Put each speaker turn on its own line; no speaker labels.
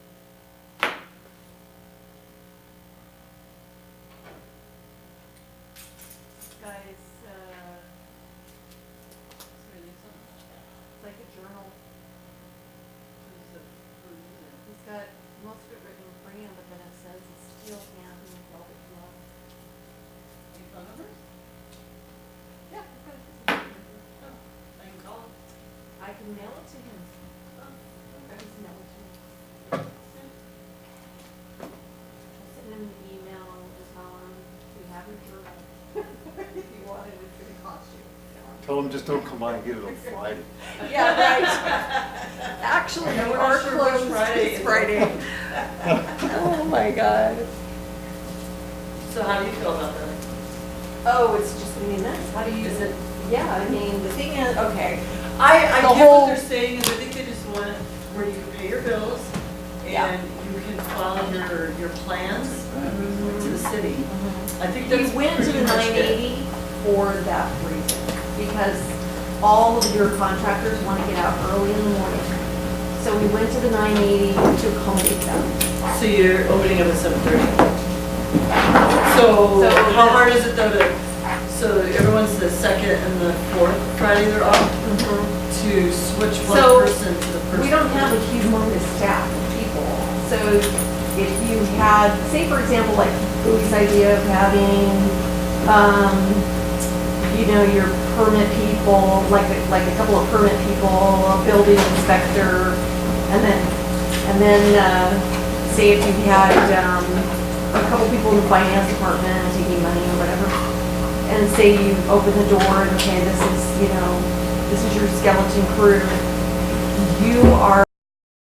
size, uh, sorry, there's something like that. It's like a journal. Who's the- who is it? He's got most of it written in crayon, but then it says it's steel hand and velvet glove.
Any phone numbers?
Yeah, he's got a physical paper.
I can call them.
I can mail it to him. Oh. I
Okay.
can mail it to him.
Yeah.
I'll send him an email and tell him we have a journal. If you want it, it's gonna cost you.
Tell them just don't come by and get it on Friday.
Yeah, right. Actually,
Yeah,
we
we're
are
not sure which
closed
Friday
this
is.
Friday. Oh, my God.
So how do you feel about that?
Oh, it's just, I mean, that's, how do you,
Is it-
yeah, I mean, the thing is, okay.
I, I
The
get what
whole-
they're saying, is I think they just want where you pay your bills
Yeah.
and you can follow your, your plans
Mm-hmm.
to the city. I think
We
that's
went to
pretty
the
much
nine
it.
eighty for that reason, because all of your contractors want to get out early in the morning. So we went to the nine eighty to accommodate them.
So you're opening up at seven thirty. So
So
how
the-
hard is it though to, so everyone's the second and the fourth Friday they're off, to switch one
So,
person to the person?
We don't have a humongous staff of people, so if you had, say for example, like Louis' idea of having, um, you know, your permit people, like, a- like a couple of permit people, a building inspector, and then, and then, uh, say if you had, um, a couple people in the finance department taking money or whatever, and say you open the door and, okay, this is, you know, this is your skeleton crew, you are